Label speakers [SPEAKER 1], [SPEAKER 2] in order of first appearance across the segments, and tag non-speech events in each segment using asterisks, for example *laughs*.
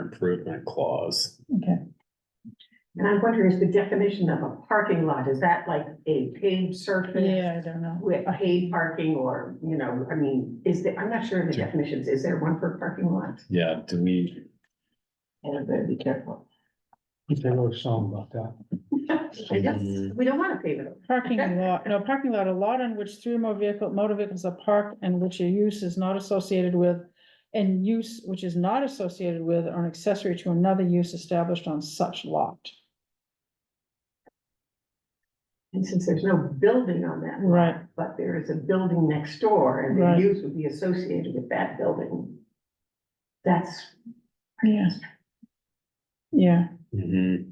[SPEAKER 1] improvement clause.
[SPEAKER 2] Okay,
[SPEAKER 3] And I'm wondering, is the definition of a parking lot, is that like a paved surface?
[SPEAKER 2] yeah, I don't know.
[SPEAKER 3] With paid parking or, you know, I mean, is there, I'm not sure of the definitions, is there one for parking lot?
[SPEAKER 1] Yeah, do we,
[SPEAKER 3] And I'm gonna be careful.
[SPEAKER 4] They wrote a song about that.
[SPEAKER 3] I guess we don't wanna pave it. *laughs*
[SPEAKER 2] Parking lot, no, parking lot, a lot on which three or more vehicle, motor vehicles are parked and which a use is not associated with. And use which is not associated with or an accessory to another use established on such lot.
[SPEAKER 3] And since there's no building on that. lot,
[SPEAKER 2] Right.
[SPEAKER 3] But there is a building next door and the
[SPEAKER 2] Right.
[SPEAKER 3] use would be associated with that building. That's,
[SPEAKER 2] Yeah. Yeah,
[SPEAKER 3] Mm-hmm.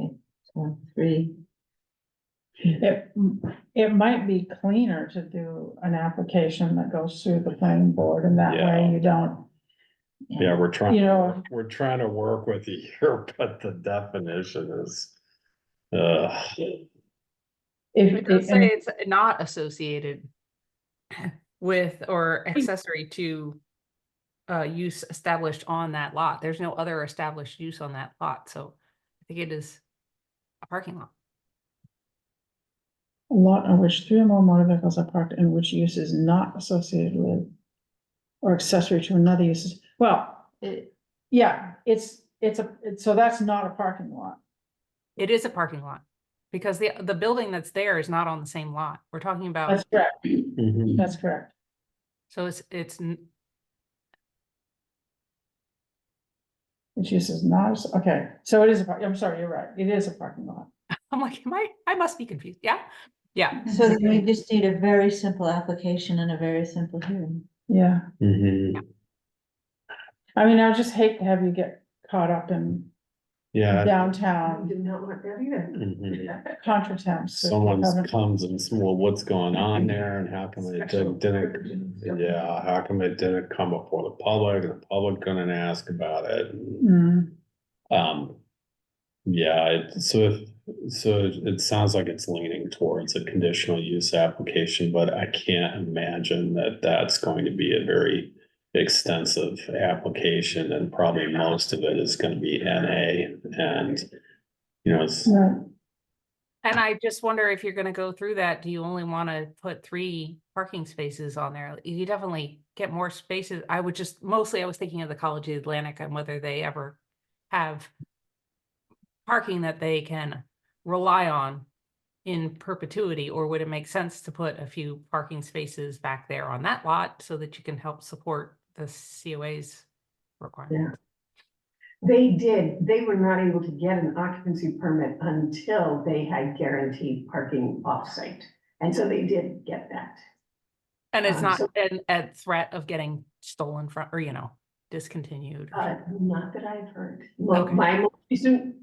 [SPEAKER 1] Mhm.
[SPEAKER 3] one, three,
[SPEAKER 2] it, it might be cleaner to do an application that goes through the planning board and that way
[SPEAKER 1] Yeah.
[SPEAKER 2] you don't,
[SPEAKER 1] yeah, we're
[SPEAKER 2] you
[SPEAKER 1] trying,
[SPEAKER 2] know,
[SPEAKER 1] we're trying to work with you here, *laughs* but the definition is. Uh,
[SPEAKER 3] Um,
[SPEAKER 2] if.
[SPEAKER 5] It does
[SPEAKER 2] if- and-
[SPEAKER 5] say it's not associated with or accessory to uh, use established on that lot. There's no other established use on that lot, so I think it is a parking lot.
[SPEAKER 2] A lot on which three or more motor vehicles are parked and which use is not associated with or accessory to another use. Well, it, yeah, it's, it's a, it's- so that's not a parking lot.
[SPEAKER 5] It is a parking lot because the, the building that's there is not on the same lot. We're talking about,
[SPEAKER 2] That's correct,
[SPEAKER 3] Mm-hmm.
[SPEAKER 1] mhm.
[SPEAKER 2] that's correct.
[SPEAKER 5] so it's, it's, n-
[SPEAKER 2] Which use is not, as- okay, so it is a park, I'm sorry, you're right, it is a parking lot.
[SPEAKER 5] I'm like, am I, I must be confused. Yeah? Yeah.
[SPEAKER 6] So then we just need a very simple application and a very simple hearing.
[SPEAKER 2] Yeah,
[SPEAKER 3] Mm-hmm.
[SPEAKER 1] Mhm.
[SPEAKER 2] I mean, I just hate to have you get caught up in
[SPEAKER 1] Yeah.
[SPEAKER 3] I
[SPEAKER 2] downtown
[SPEAKER 3] do not want that either.
[SPEAKER 1] mhm.
[SPEAKER 2] contretemps. of
[SPEAKER 1] Someone
[SPEAKER 2] having-
[SPEAKER 1] comes and says, well, what's going on there and how come it
[SPEAKER 3] Special
[SPEAKER 1] didn't, didn't,
[SPEAKER 3] provisions, yeah.
[SPEAKER 1] yeah, how come it didn't come before the public? and The public couldn't ask about it.
[SPEAKER 2] Mm,
[SPEAKER 1] Um, yeah, it- so if, so it sounds like it's leaning towards a conditional use application, but I can't imagine that that's going to be a very extensive application and probably most of it is gonna be NA and, you know, it's,
[SPEAKER 2] right.
[SPEAKER 5] And I just wonder if you're gonna go through that, do you only wanna put three parking spaces on there? You definitely get more spaces. I would just, mostly I was thinking of the College of the Atlantic and whether they ever have parking that they can rely on in perpetuity, or would it make sense to put a few parking spaces back there on that lot so that you can help support the COA's requirement?
[SPEAKER 3] They did, they were not able to get an occupancy permit until they had guaranteed parking offsite. And so they did get that.
[SPEAKER 5] And it's
[SPEAKER 3] Um,
[SPEAKER 5] not
[SPEAKER 3] so-
[SPEAKER 5] an, a threat of getting stolen from, or you know, discontinued. or
[SPEAKER 3] Uh, not that I've heard. Well,
[SPEAKER 5] Okay.
[SPEAKER 3] my most recent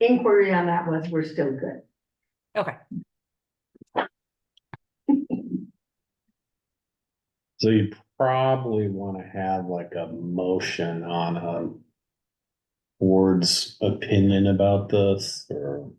[SPEAKER 3] inquiry on that was, we're still good.
[SPEAKER 5] Okay.
[SPEAKER 1] so you probably wanna have like a motion on a board's opinion about this or.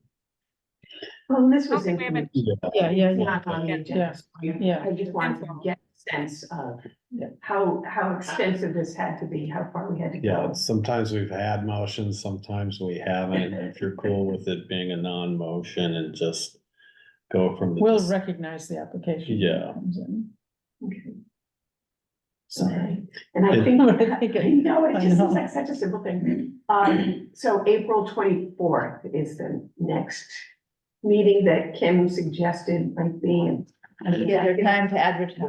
[SPEAKER 3] Well, this was.
[SPEAKER 5] Okay, we haven't-
[SPEAKER 2] Yeah, yeah,
[SPEAKER 3] It's
[SPEAKER 2] yeah,
[SPEAKER 3] not on the agenda.
[SPEAKER 2] yeah, yeah.
[SPEAKER 3] I just wanted to get a sense of
[SPEAKER 2] Yeah.
[SPEAKER 3] how, how extensive this had to be, how far we had to
[SPEAKER 1] Yeah,
[SPEAKER 3] go.
[SPEAKER 1] sometimes we've had motions, sometimes we haven't. If you're cool with it being a non-motion and just go from. the
[SPEAKER 2] We'll
[SPEAKER 1] dis-
[SPEAKER 2] recognize the application. when it
[SPEAKER 1] Yeah.
[SPEAKER 2] comes in.
[SPEAKER 3] Okay.
[SPEAKER 2] Sorry.
[SPEAKER 3] And *laughs* I
[SPEAKER 1] It-
[SPEAKER 3] think,
[SPEAKER 2] I think
[SPEAKER 3] I
[SPEAKER 2] it-
[SPEAKER 3] know, it
[SPEAKER 2] I
[SPEAKER 3] just
[SPEAKER 2] know.
[SPEAKER 3] seems like such a simple thing. Um, so April twenty-fourth is the next meeting that Kim suggested might be.
[SPEAKER 6] And
[SPEAKER 3] Yeah,
[SPEAKER 6] give her
[SPEAKER 3] I think-
[SPEAKER 6] time to
[SPEAKER 3] Would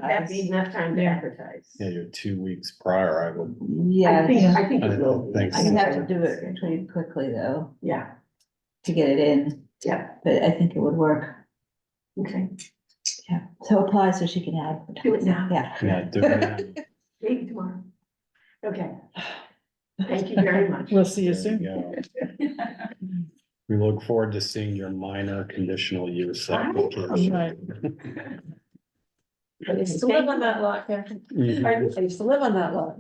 [SPEAKER 3] that be
[SPEAKER 6] advertise.
[SPEAKER 3] enough time to
[SPEAKER 2] Yeah.
[SPEAKER 3] advertise?
[SPEAKER 1] Yeah, you're two weeks prior, I would,
[SPEAKER 3] I think,
[SPEAKER 6] Yeah,
[SPEAKER 3] I think
[SPEAKER 1] I
[SPEAKER 3] it will. be.
[SPEAKER 1] think
[SPEAKER 6] I
[SPEAKER 1] so.
[SPEAKER 6] would have to do it pretty quickly though,
[SPEAKER 3] Yeah,
[SPEAKER 6] to get it in,
[SPEAKER 3] yeah,
[SPEAKER 6] but I think it would work.
[SPEAKER 3] okay.
[SPEAKER 6] Yeah, so apply so she can advertise.
[SPEAKER 3] Do it now.
[SPEAKER 6] Yeah.
[SPEAKER 3] *laughs*
[SPEAKER 1] yeah, do it now.
[SPEAKER 3] Maybe tomorrow. Okay, thank you very
[SPEAKER 2] *laughs*
[SPEAKER 3] much.
[SPEAKER 2] We'll see you
[SPEAKER 1] There you
[SPEAKER 2] soon.
[SPEAKER 1] go.
[SPEAKER 3] *laughs*
[SPEAKER 1] We look forward to seeing your minor conditional use
[SPEAKER 3] I know,
[SPEAKER 2] right.
[SPEAKER 1] application.
[SPEAKER 7] I used to live on that lot, yeah.
[SPEAKER 1] Mhm.
[SPEAKER 7] I I used to live on that lot.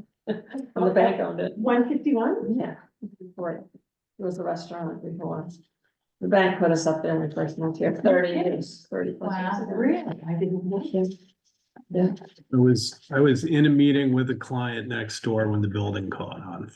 [SPEAKER 7] On the back of it,
[SPEAKER 3] One fifty-one?
[SPEAKER 7] yeah. Before it was a restaurant before. The bank put us up there when we first moved here, thirty years, thirty plus years ago.
[SPEAKER 3] Really? I didn't know.
[SPEAKER 7] Yeah.
[SPEAKER 8] I was, I was in a meeting with a client next door when the building caught on